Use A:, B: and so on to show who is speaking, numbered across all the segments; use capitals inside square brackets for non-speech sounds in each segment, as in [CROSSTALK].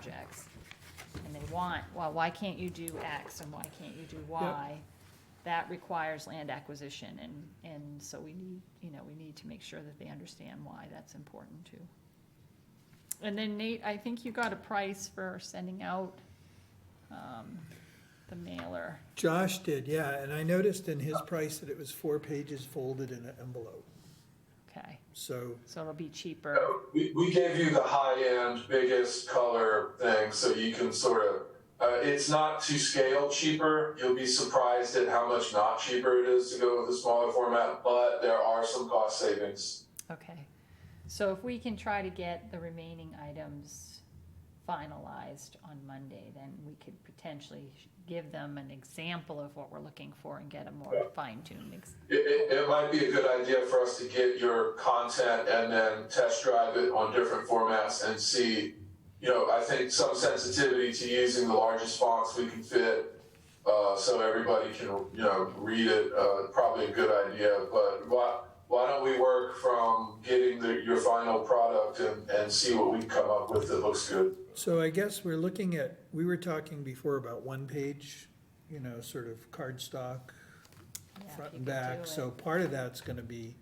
A: projects, and they want, well, why can't you do X and why can't you do Y? That requires land acquisition, and, and so we need, you know, we need to make sure that they understand why that's important too. And then Nate, I think you got a price for sending out, um, the mailer.
B: Josh did, yeah, and I noticed in his price that it was four pages folded in an envelope.
A: Okay,
B: So,
A: so it'll be cheaper.
C: We, we gave you the high end, biggest color thing, so you can sort of. Uh, it's not to scale cheaper. You'll be surprised at how much not cheaper it is to go with a smaller format, but there are some cost savings.
A: Okay, so if we can try to get the remaining items finalized on Monday, then we could potentially sh- give them an example of what we're looking for and get a more fine-tuned ex-
C: It, it, it might be a good idea for us to get your content and then test drive it on different formats and see. You know, I think some sensitivity to using the largest fonts we can fit, uh, so everybody can you know read it. Uh, probably a good idea, but why why don't we work from getting the, your final product and, and see what we can come up with that looks good.
B: so I guess we're looking at, we were talking before about one page, you know, sort of cardstock,
A: yeah, if
B: front
A: you could
B: and
A: do
B: back,
A: it.
B: so part of that's gonna be,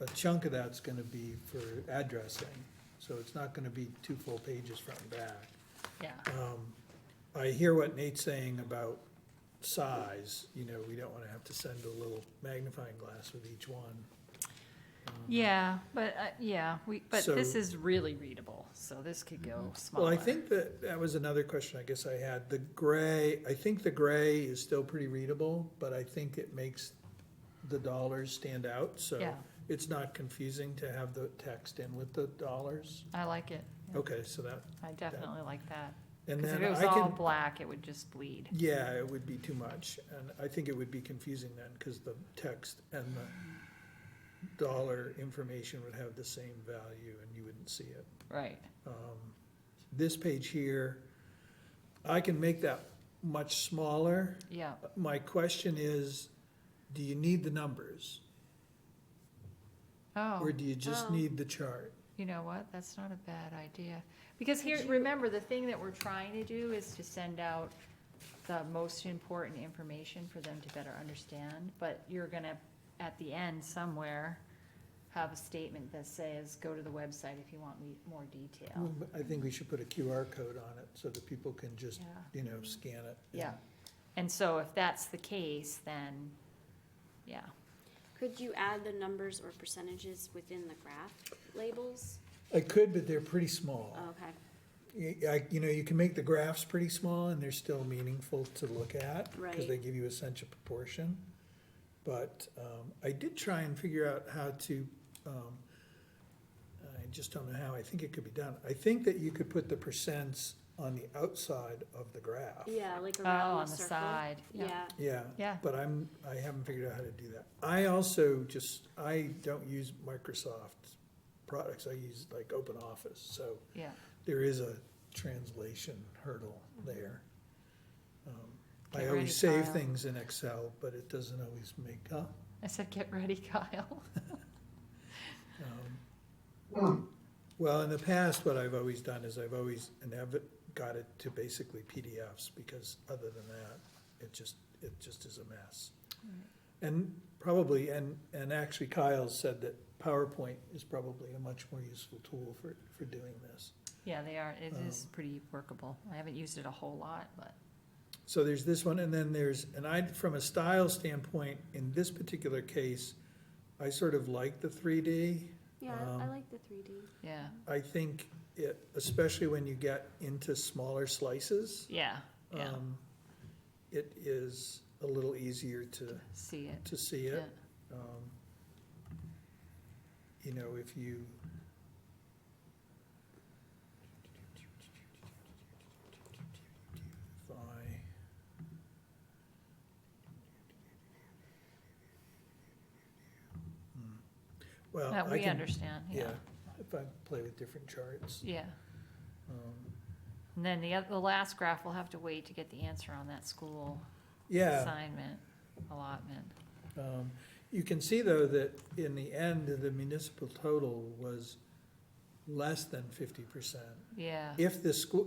B: a chunk of that's gonna be for addressing. So it's not gonna be two full pages front and back.
A: Yeah,
B: Um, I hear what Nate's saying about size, you know, we don't wanna have to send a little magnifying glass with each one.
A: yeah, but, uh, yeah, we, but this
B: So- Mm-hmm.
A: is really readable, so this could go smaller.
B: Well, I think that, that was another question I guess I had, the gray, I think the gray is still pretty readable, but I think it makes the dollars stand out, so
A: Yeah.
B: it's not confusing to have the text in with the dollars.
A: I like it, Yeah,
B: Okay, so that,
A: I definitely like that,
B: Oh, and
A: because if
B: then
A: it was
B: I
A: all
B: can,
A: black, it would just bleed.
B: yeah, it would be too much, and I think it would be confusing then, cause the text and the dollar information would have the same value and you wouldn't see it.
A: Right,
B: This page here, I can make that much smaller,
A: yeah,
B: My question is, do you need the numbers?
A: oh.
B: Or do you just
A: Oh.
B: need the chart?
A: You know what, that's not a bad idea, because here, remember, the thing that we're trying to do is to send out the most important information for them to better understand, but you're gonna, at the end somewhere, have a statement that says, go to the website if you want me- more detail.
B: I think we should put a QR code on it so that people can just,
A: Yeah.
B: you know, scan it.
A: Yeah, and so if that's the case, then, yeah,
D: Could you add the numbers or percentages within the graph labels?
B: I could, but they're pretty small.
D: Okay,
B: You, I, you know, you can make the graphs pretty small and they're still meaningful to look at. Cause
D: Right.
B: they give you a sense of proportion. But, um, I did try and figure out how to, um, I just don't know how, I think it could be done. I think that you could put the percents on the outside of the graph.
D: yeah, like
A: oh,
D: around
A: on
D: the
A: the
D: circle.
A: side, yeah,
D: Yeah,
B: Yeah.
A: Yeah.
B: But I'm, I haven't figured out how to do that. I also just, I don't use Microsoft products, I use like Open Office, so
A: yeah.
B: there is a translation hurdle there. Um,
A: Get
B: I
A: ready,
B: always save
A: Kyle.
B: things in Excel, but it doesn't always make up.
A: I said, get ready, [LAUGHS] Kyle.
B: Well, in the past, what I've always done is I've always, and have got it to basically PDFs, because other than that, it just, it just is a mess. And probably, and, and actually Kyle said that PowerPoint is probably a much more useful tool for, for doing this.
A: Yeah, they are, it is pretty workable, I haven't used it a whole lot, but.
B: So there's this one, and then there's, and I, from a style standpoint, in this particular case, I sort of like the three D.
D: yeah, I like the three D.
A: Yeah,
B: I think it, especially when you get into smaller slices.
A: yeah, yeah.
B: um, It is a little easier to,
A: See it.
B: to see
A: Yeah.
B: it. Um, You know, if you. If I- Hmm. Well,
A: That
B: I
A: we
B: can,
A: understand, yeah.
B: yeah, if I play with different charts.
A: Yeah.
B: um,
A: And then the, oth- the last graph, we'll have to wait to get the answer on that school
B: Yeah.
A: assignment allotment.
B: Um, You can see, though, that in the end, the municipal total was less than fifty percent.
A: Yeah.
B: If the school,